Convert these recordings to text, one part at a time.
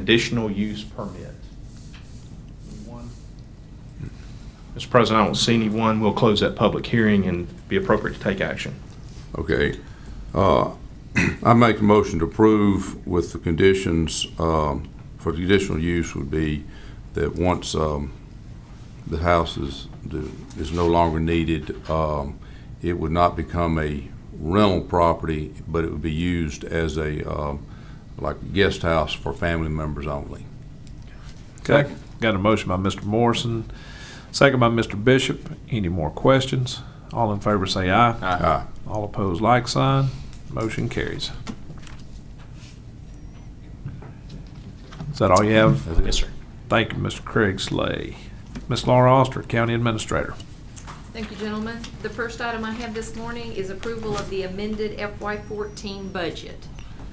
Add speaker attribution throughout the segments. Speaker 1: conditional use permit. Mr. President, I don't see anyone. We'll close that public hearing and be appropriate to take action.
Speaker 2: Okay. Uh, I make a motion to approve with the conditions, um, for the additional use would be that once um, the house is, is no longer needed, um, it would not become a rental property, but it would be used as a, um, like a guest house for family members only.
Speaker 3: Okay, got a motion by Mr. Morrison, second by Mr. Bishop. Any more questions? All in favor say aye.
Speaker 2: Aye.
Speaker 3: All opposed, like sign. Motion carries. Is that all you have?
Speaker 1: Yes, sir.
Speaker 3: Thank you, Mr. Craig Slay. Ms. Laura Oster, County Administrator.
Speaker 4: Thank you, gentlemen. The first item I have this morning is approval of the amended FY14 budget.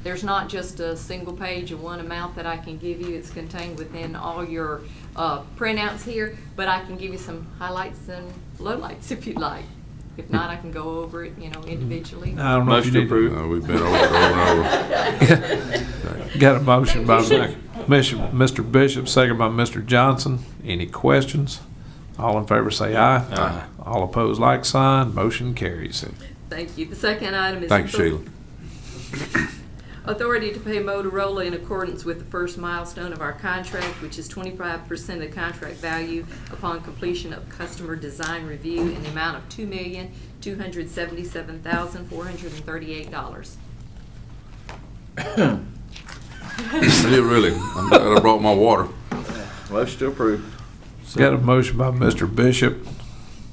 Speaker 4: There's not just a single page and one amount that I can give you. It's contained within all your uh, printouts here, but I can give you some highlights and lowlights if you'd like. If not, I can go over it, you know, individually.
Speaker 3: I don't know if you
Speaker 5: Motion to
Speaker 3: need-
Speaker 5: approve.
Speaker 2: Uh, We've been over it over and over.
Speaker 3: Got a motion by
Speaker 4: Second.
Speaker 3: Bishop- Mr. Bishop, second by Mr. Johnson. Any questions? All in favor say aye.
Speaker 5: Aye.
Speaker 3: All opposed, like sign. Motion carries.
Speaker 4: Thank you. The second item is.
Speaker 2: Thank you, Sheila.
Speaker 4: Authority to pay Motorola in accordance with the first milestone of our contract, which is twenty-five percent of the contract value upon completion of customer design review in the amount of two million, two hundred seventy-seven thousand, four hundred and thirty-eight dollars.
Speaker 2: I did really. I'm glad I brought my water.
Speaker 5: Motion to approve.
Speaker 3: Got a motion by Mr. Bishop,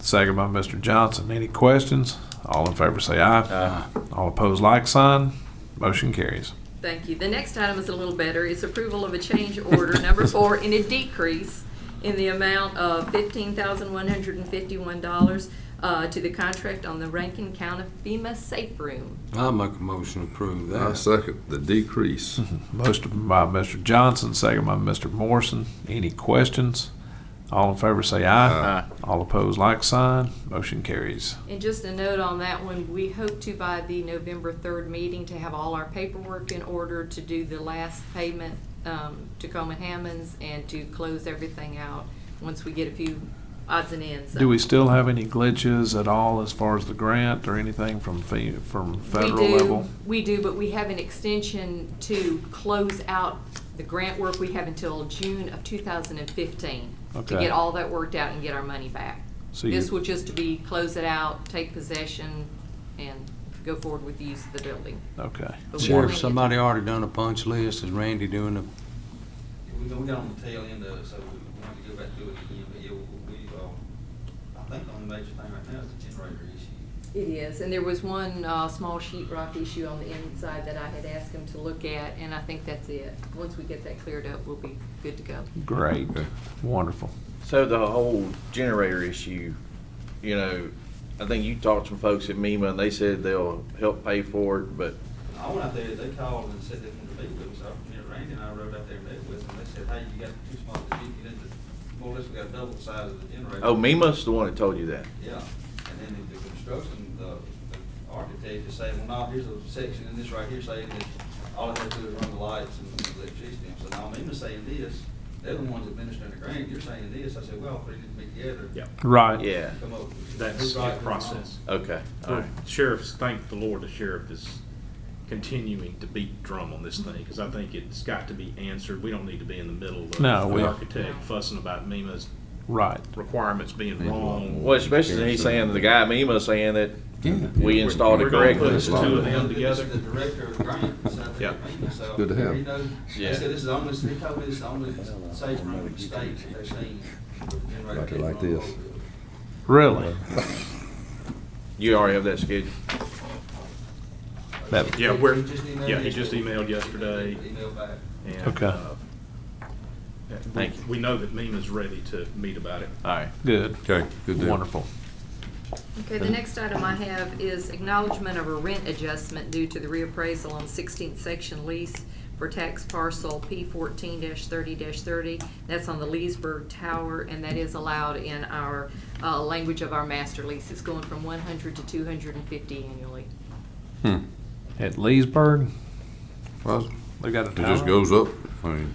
Speaker 3: second by Mr. Johnson. Any questions? All in favor say aye.
Speaker 5: Aye.
Speaker 3: All opposed, like sign. Motion carries.
Speaker 4: Thank you. The next item is a little better. It's approval of a change order, number four, in a decrease in the amount of fifteen thousand one hundred and fifty-one dollars uh, to the contract on the Rankin County FEMA Safe Room.
Speaker 6: I make a motion to approve
Speaker 2: I
Speaker 6: that.
Speaker 2: second the decrease.
Speaker 3: Motion by Mr. Johnson, second by Mr. Morrison. Any questions? All in favor say aye. All opposed, like sign. Motion carries.
Speaker 4: And just a note on that one, we hope to by the November third meeting to have all our paperwork in order to do the last payment, um, to Coleman Hammonds and to close everything out once we get a few odds and ends.
Speaker 3: Do we still have any glitches at all as far as the grant or anything from fe- from federal
Speaker 4: we do,
Speaker 3: level?
Speaker 4: We do, but we have an extension to close out the grant work we have until June of two thousand and fifteen. To
Speaker 3: Okay.
Speaker 4: get all that worked out and get our money back.
Speaker 3: So
Speaker 4: This
Speaker 3: you-
Speaker 4: will just be close it out, take possession, and go forward with the use of the building.
Speaker 3: Oh, Okay.
Speaker 4: But we
Speaker 6: Sheriff,
Speaker 4: wanna-
Speaker 6: somebody already done a punch list. Is Randy doing a,
Speaker 7: We got, we got on the tail end of it, so we want to go back through it again, but yeah, we, we, uh, I think the only major thing right now is the generator issue.
Speaker 4: It is, and there was one, uh, small sheetrock issue on the inside that I had asked him to look at, and I think that's it. Once we get that cleared up, we'll be good to go.
Speaker 3: Great.
Speaker 2: Okay.
Speaker 3: Wonderful.
Speaker 5: So the whole generator issue, you know, I think you talked to some folks at MEMA and they said they'll help pay for it, but
Speaker 7: I went out there, they called and said they wanted to meet with us, so, you know, Randy and I rode out there and met with them, they said, hey, you got too small of a Jeep, you need to, more or less, we got double the size of the generator.
Speaker 5: oh, MEMA's the one that told you that.
Speaker 7: Yeah, and then the- the construction, the the architect is saying, well, no, here's a section in this right here saying that all it has to do is run the lights and the electricity. And So now I'm even saying this, they're the ones administering the grant, you're saying this. I said, well, if we need to be together.
Speaker 8: Yeah.
Speaker 3: Right.
Speaker 5: Yeah.
Speaker 7: Come up. with
Speaker 8: That's
Speaker 7: who's
Speaker 8: the
Speaker 7: right, who's wrong.
Speaker 8: process.
Speaker 5: Okay. All right.
Speaker 8: Sheriff's, thank the Lord, the sheriff is continuing to beat drum on this thing, because I think it's got to be answered. We don't need to be in the middle of
Speaker 3: No, we-
Speaker 8: the architect fussing about MEMA's
Speaker 3: Right.
Speaker 8: requirements being wrong.
Speaker 5: Well, especially he's saying, the guy at MEMA saying that we installed it
Speaker 8: We're gonna
Speaker 5: correctly.
Speaker 8: put two of them
Speaker 7: This
Speaker 8: together.
Speaker 7: is The director of grant, so I
Speaker 8: Yeah.
Speaker 7: think, so.
Speaker 2: Good to have.
Speaker 7: He knows, he
Speaker 5: Yeah.
Speaker 7: said, this is the only, he told me this is the only safe room in the state that they've seen. with the generator
Speaker 2: Like it like
Speaker 7: on the
Speaker 2: this.
Speaker 7: whole-
Speaker 3: Really?
Speaker 5: You already have that scheduled.
Speaker 3: That-
Speaker 8: Yeah, we're-
Speaker 7: just emailed
Speaker 8: yeah, he just
Speaker 7: yesterday.
Speaker 8: emailed yesterday.
Speaker 7: Emailed back.
Speaker 8: And,
Speaker 3: Okay.
Speaker 8: uh,
Speaker 5: Thank you.
Speaker 8: We know that MEMA's ready to meet about it.
Speaker 5: All right.
Speaker 3: Good.
Speaker 2: Okay, good deal.
Speaker 3: Wonderful.
Speaker 4: Okay, the next item I have is acknowledgement of a rent adjustment due to the reappraisal on 16th section lease for tax parcel P fourteen thirty thirty. That's on the Leesburg Tower, and that is allowed in our, uh, language of our master lease. It's going from one hundred to two hundred and fifty annually.
Speaker 2: Hmm.
Speaker 3: At Leesburg,
Speaker 2: Well,
Speaker 3: they got a
Speaker 2: it
Speaker 3: tower.
Speaker 2: just goes up. I mean,